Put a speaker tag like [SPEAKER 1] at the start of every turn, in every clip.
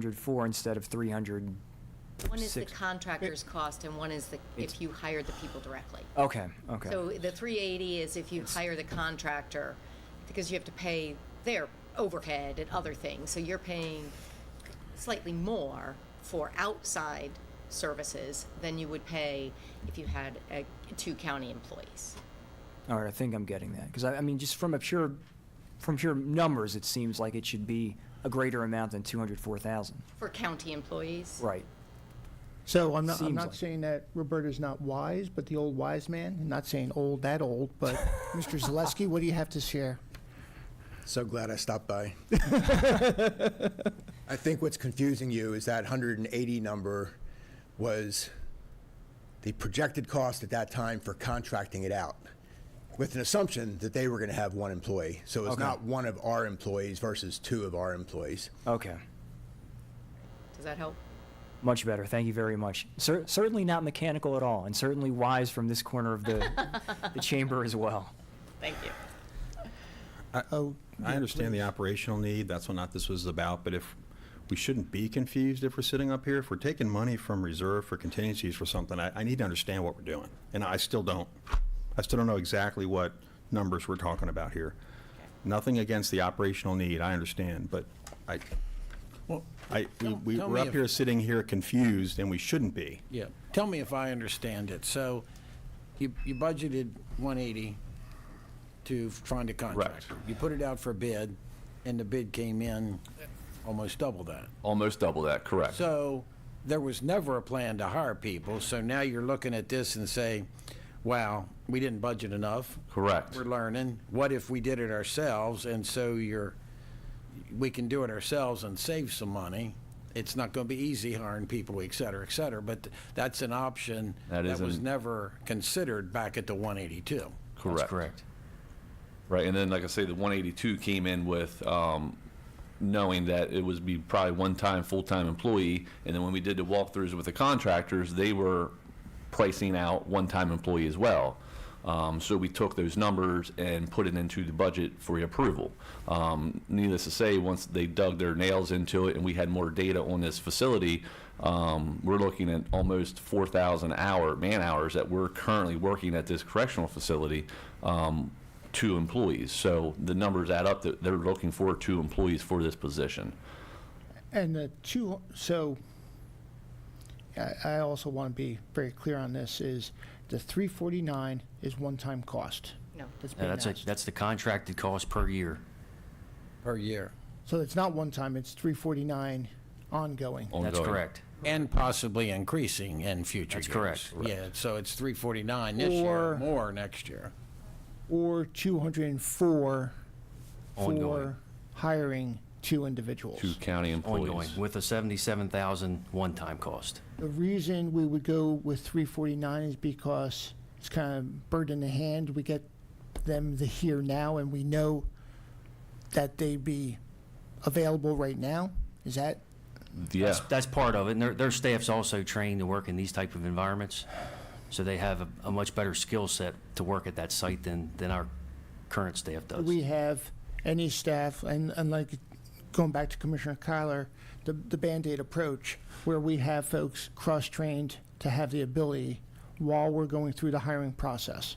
[SPEAKER 1] 204 instead of 300.
[SPEAKER 2] One is the
[SPEAKER 1] Six.
[SPEAKER 2] contractor's cost and one is the,
[SPEAKER 1] It's-
[SPEAKER 2] if you hire the people directly.
[SPEAKER 1] Okay, okay.
[SPEAKER 2] So the three eighty is if you hire the contractor, because you have to pay their overhead and other things, so you're paying slightly more for outside services than you would pay if you had, uh, two county employees.
[SPEAKER 1] All right, I think I'm getting that. Because I, I mean, just from a pure, from pure numbers, it seems like it should be a greater amount than 204,000.
[SPEAKER 2] For county employees?
[SPEAKER 1] Right.
[SPEAKER 3] So I'm not, I'm
[SPEAKER 1] Seems
[SPEAKER 3] not
[SPEAKER 1] like it.
[SPEAKER 3] saying that Roberta's not wise, but the old wise man, not saying old, that old, but Mr. Zaleski, what do you have to share?
[SPEAKER 4] So glad I stopped by. I think what's confusing you is that 180 number was the projected cost at that time for contracting it out, with an assumption that they were going to have one employee. So it's
[SPEAKER 1] Okay.
[SPEAKER 4] not one of our employees versus two of our employees.
[SPEAKER 1] Okay.
[SPEAKER 2] Does that help?
[SPEAKER 1] Much better. Thank you very much. Cer- certainly not mechanical at all, and certainly wise from this corner of the, the chamber as well.
[SPEAKER 2] Thank you.
[SPEAKER 3] Oh,
[SPEAKER 5] I understand the operational need, that's what not this was about, but if, we shouldn't be confused if we're sitting up here, if we're taking money from reserve for contingencies for something, I, I need to understand what we're doing, and I still don't. I still don't know exactly what numbers we're talking about here. Nothing against the operational need, I understand, but I, I, we-
[SPEAKER 6] tell-
[SPEAKER 5] we,
[SPEAKER 6] tell
[SPEAKER 5] we're
[SPEAKER 6] me
[SPEAKER 5] up
[SPEAKER 6] if-
[SPEAKER 5] here sitting here confused, and we shouldn't be.
[SPEAKER 6] Yeah, tell me if I understand it. So you, you budgeted 180 to find a contractor. You put it out for bid, and the bid came in almost double that.
[SPEAKER 7] Almost double that, correct.
[SPEAKER 6] So there was never a plan to hire people, so now you're looking at this and say, wow, we didn't budget enough.
[SPEAKER 7] Correct.
[SPEAKER 6] We're learning. What if we did it ourselves? And so you're, we can do it ourselves and save some money. It's not going to be easy hiring people, et cetera, et cetera, but that's an option
[SPEAKER 7] That is
[SPEAKER 6] that was
[SPEAKER 7] an-
[SPEAKER 6] never considered back at the 182.
[SPEAKER 7] correct. Right, and then like I say, the 182 came in with um, knowing that it was be probably one-time full-time employee, and then when we did the walkthroughs with the contractors, they were pricing out one-time employee as well. Um, so we took those numbers and put it into the budget for approval. Um, needless to say, once they dug their nails into it and we had more data on this facility, um, we're looking at almost 4,000 hour man hours that we're currently working at this correctional facility. Um, two employees. So the numbers add up that they're looking for two employees for this position.
[SPEAKER 3] And the two, so I, I also want to be very clear on this, is the 349 is one-time cost.
[SPEAKER 2] No.
[SPEAKER 3] That's
[SPEAKER 8] Yeah,
[SPEAKER 3] being
[SPEAKER 8] that's, a-
[SPEAKER 3] asked.
[SPEAKER 8] that's the contracted cost per year.
[SPEAKER 6] Per year.
[SPEAKER 3] So it's not one-time, it's 349 ongoing.
[SPEAKER 8] That's
[SPEAKER 7] ongoing.
[SPEAKER 8] correct.
[SPEAKER 6] And possibly increasing in future
[SPEAKER 8] That's
[SPEAKER 6] years.
[SPEAKER 8] correct.
[SPEAKER 6] Yeah, so it's 349 this year,
[SPEAKER 3] Or-
[SPEAKER 6] more next year.
[SPEAKER 3] Or 204
[SPEAKER 8] Ongoing.
[SPEAKER 3] for hiring two individuals.
[SPEAKER 7] Two county employees.
[SPEAKER 8] Ongoing, with a 77,000 one-time cost.
[SPEAKER 3] The reason we would go with three forty-nine is because it's kind of bird in the hand. We get them the here now, and we know that they'd be available right now. Is that?
[SPEAKER 7] Yeah.
[SPEAKER 8] That's- That's part of it, and their, their staff's also trained to work in these type of environments, so they have a, a much better skill set to work at that site than, than our current staff
[SPEAKER 3] Do
[SPEAKER 8] does.
[SPEAKER 3] we have any staff, and, and like going back to Commissioner Kyler, the, the Band-Aid approach, where we have folks cross-trained to have the ability while we're going through the hiring process,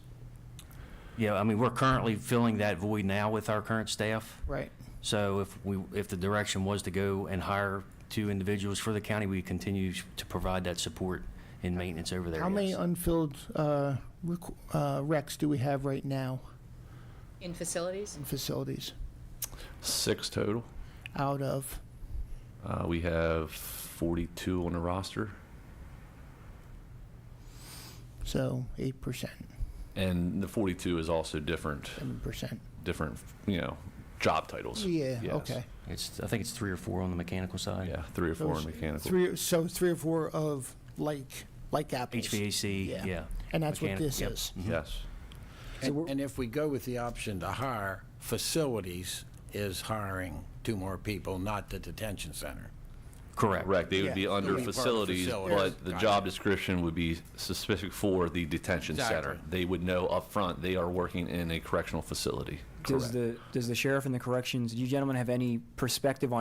[SPEAKER 8] Yeah, I mean, we're currently filling that void now with our current staff.
[SPEAKER 3] right?
[SPEAKER 8] So if we, if the direction was to go and hire two individuals for the county, we continue to provide that support and maintenance over there.
[SPEAKER 3] How many
[SPEAKER 8] yes.
[SPEAKER 3] unfilled, uh, rec- uh, recs do we have right now
[SPEAKER 2] In facilities?
[SPEAKER 3] in facilities?
[SPEAKER 7] Six total.
[SPEAKER 3] out of.
[SPEAKER 7] Uh, we have 42 on the roster.
[SPEAKER 3] So eight percent,
[SPEAKER 7] And the 42 is also different,
[SPEAKER 3] seven percent.
[SPEAKER 7] different, you know, job titles.
[SPEAKER 3] Yeah.
[SPEAKER 7] Yes.
[SPEAKER 3] Okay.
[SPEAKER 8] It's, I think it's three or four on the mechanical side.
[SPEAKER 7] Yeah, three or four in mechanical.
[SPEAKER 3] Three. So three or four of like like apples.
[SPEAKER 8] HVAC,
[SPEAKER 3] Yeah.
[SPEAKER 8] yeah.
[SPEAKER 3] And that's what
[SPEAKER 8] Mechanic-
[SPEAKER 3] this
[SPEAKER 8] yep.
[SPEAKER 3] is.
[SPEAKER 7] Yes.
[SPEAKER 6] And and if we go with the option to hire, facilities is hiring two more people, not the detention center.
[SPEAKER 8] Correct.
[SPEAKER 7] Correct. They would be
[SPEAKER 3] Yeah.
[SPEAKER 7] under
[SPEAKER 6] Still be part of
[SPEAKER 7] facilities,
[SPEAKER 6] facilities.
[SPEAKER 7] but the
[SPEAKER 6] Yes.
[SPEAKER 7] job description would be specific for the detention center.
[SPEAKER 6] Exactly.
[SPEAKER 7] They would know upfront they are working in a correctional facility.
[SPEAKER 1] Does the, does the sheriff and the corrections, do you gentlemen have any perspective on